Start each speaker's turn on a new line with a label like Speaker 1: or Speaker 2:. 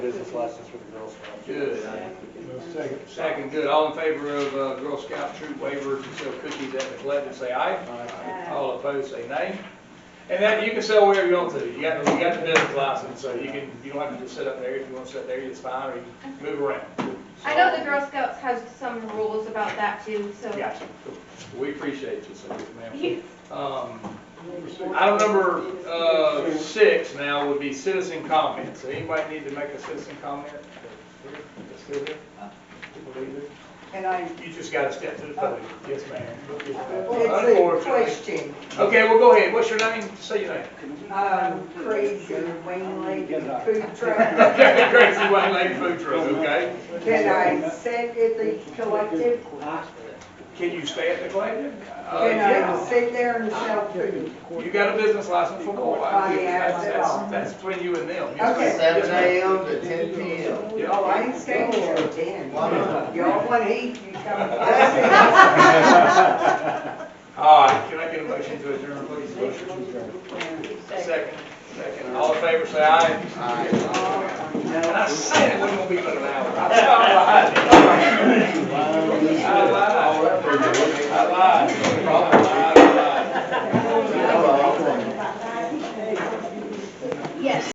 Speaker 1: business license for the Girl Scouts.
Speaker 2: Good. Second, good. All in favor of uh, Girl Scout troop waiver to sell cookies at McLeod, say aye.
Speaker 3: Aye.
Speaker 2: All opposed, say nay. And that, you can sell wherever you want to. You got, you got the business license, so you can, you don't have to just sit up there. If you want to sit there, it's fine, or you can move around.
Speaker 3: I know the Girl Scouts has some rules about that too, so.
Speaker 2: Gotcha. We appreciate you, so, ma'am.
Speaker 3: You-
Speaker 2: Um, Item number uh, six now would be citizen comments. Anybody need to make a citizen comment? It's still here?
Speaker 4: And I,
Speaker 2: You just gotta step to the podium. Yes, ma'am.
Speaker 4: it's a question,
Speaker 2: Okay, well, go ahead. What's your name? Say your name.
Speaker 4: um, crazy wing lady food truck.
Speaker 2: Okay, Gracie Wayne Lady Food Truck, okay?
Speaker 4: Can I sit at the collective?
Speaker 2: Can you stay at the Gladiator? Uh,
Speaker 4: Can I sit there and sell food?
Speaker 2: You got a business license for more.
Speaker 4: I have it all.
Speaker 2: That's that's between you and them. Yes,
Speaker 4: Okay.
Speaker 2: ma'am.
Speaker 5: Seven AM to ten PM.
Speaker 2: Yeah.
Speaker 4: Oh, I ain't staying till ten.
Speaker 5: Why not?
Speaker 4: Y'all wanna eat, you come. I
Speaker 2: All right, can I get a motion to adjourn, please? Second, second. All in favor, say aye. And I said it wasn't gonna be but an hour. I stopped behind it. I lied.